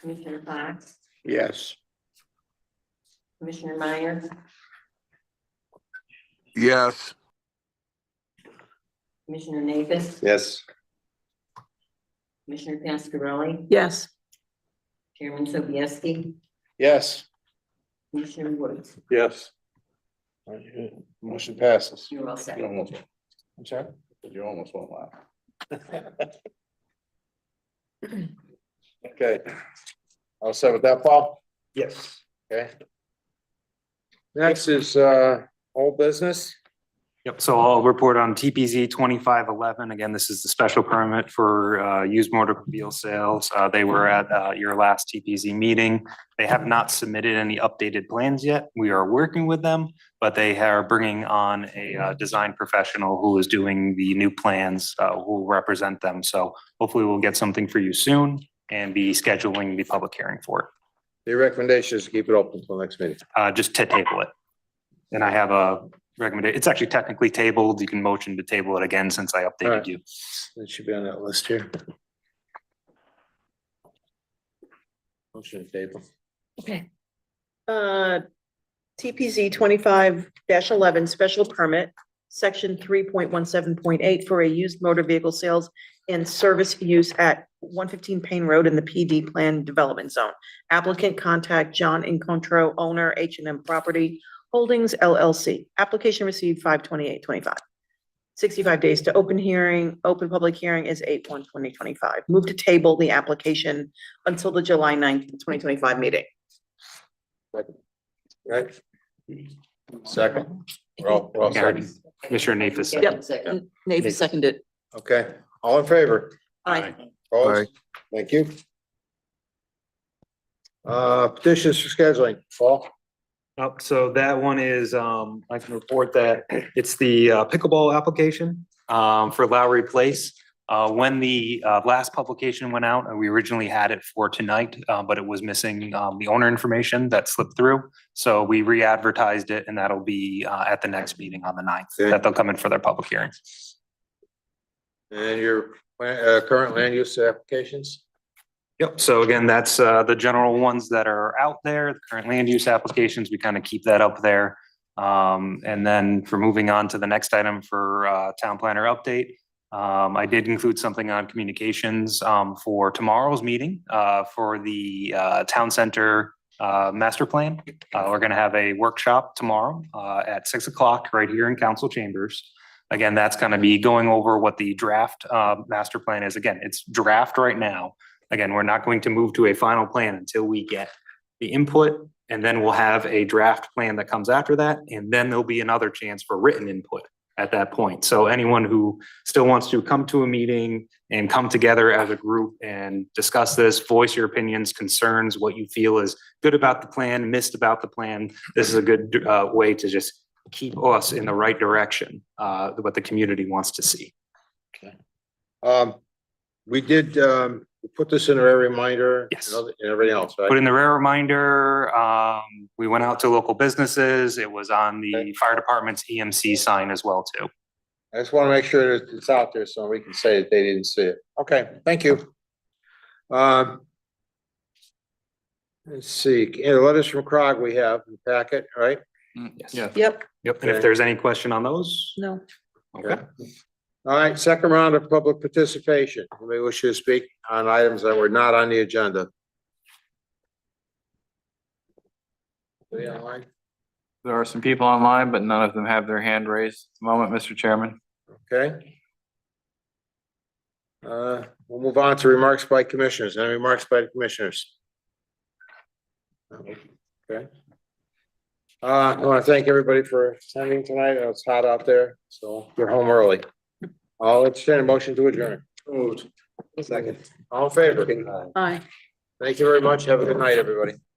Commissioner Fox, Yes. Commissioner Meyer, Yes. Commissioner Navis, Yes. Commissioner Pascarelli, yes, Chairman Sobieski, Yes. Commissioner Woods, Yes. Motion passes. you're all set. You almost, I'm sorry? You almost won't laugh. Okay. I'll start with that, Paul? Yes. Okay. Next is, uh, old business. Yep, so I'll report on TPZ twenty-five eleven. Again, this is the special permit for uh used motor vehicle sales. Uh they were at uh your last TPZ meeting. They have not submitted any updated plans yet. We are working with them, but they are bringing on a uh design professional who is doing the new plans, uh who will represent them. So hopefully we'll get something for you soon and be scheduling the public hearing for it. Your recommendation is to keep it open until next meeting. Uh, just to table it. And I have a recommendation. It's actually technically tabled. You can motion to table it again since I updated Alright. you. It should be on that list here. Motion to table. okay. Uh, TPZ twenty-five eleven, special permit, section three point one seven point eight for a used motor vehicle sales and service use at one fifteen Payne Road in the PD Plan Development Zone. Applicant contact John Incontro, owner H and M Property Holdings LLC. Application received five twenty-eight twenty-five. Sixty-five days to open hearing. Open public hearing is eight one twenty twenty-five. Move to table the application until the July 9th, twenty twenty-five meeting. Right? Second. We're all, we're all Gary. second. Commissioner Nafis Yep. Second. Navy seconded. Okay, all in favor? Aye. Opposed? Thank you. Uh, petitions for scheduling, Paul? Up, Oh, so that one is, um, I can report that it's the uh, pickleball application, um, for Lowry Place. Uh, when the, uh, last publication went out, uh, we originally had it for tonight, uh, but it was missing, um, the owner information that slipped through. So we re-advertised it and that'll be, uh, at the next meeting on the ninth, Okay. that they'll come in for their public hearing. And your, uh, current land use applications? Yep, so again, that's uh the general ones that are out there, the current land use applications, we kind of keep that up there. Um, and then for moving on to the next item for uh town planner update. Um, I did include something on communications um for tomorrow's meeting uh for the uh town center uh master plan. Uh, we're gonna have a workshop tomorrow uh at six o'clock right here in council chambers. Again, that's gonna be going over what the draft uh master plan is. Again, it's draft right now. Again, we're not going to move to a final plan until we get the input. And then we'll have a draft plan that comes after that, and then there'll be another chance for written input at that point. So anyone who still wants to come to a meeting and come together as a group and discuss this, voice your opinions, concerns, what you feel is good about the plan, missed about the plan. This is a good uh way to just keep us in the right direction, uh what the community wants to see. Um, we did, um, we put this in our reminder. Yes. And other- and everything else, Put right? in the rare reminder, um, we went out to local businesses. It was on the fire department's EMC sign as well too. I just want to make sure that it's out there so we can say that they didn't see it. Okay, thank you. Um. Let's see, and letters from CROG we have in the packet, right? Yeah. Yep, Yep. And if there's any question on those, no. okay. All right, second round of public participation. Anybody wish to speak on items that were not on the agenda? Anybody online? There are some people online, but none of them have their hand raised. at the Moment, Mr. Chairman. Okay. Uh, we'll move on to remarks by commissioners. Any remarks by the commissioners? Okay. Uh, I want to thank everybody for attending tonight. It's hot out there, so get home early. I'll entertain a motion to adjourn. Moved. Second. All in favor? Aye. Thank you very much. Have a good night, everybody.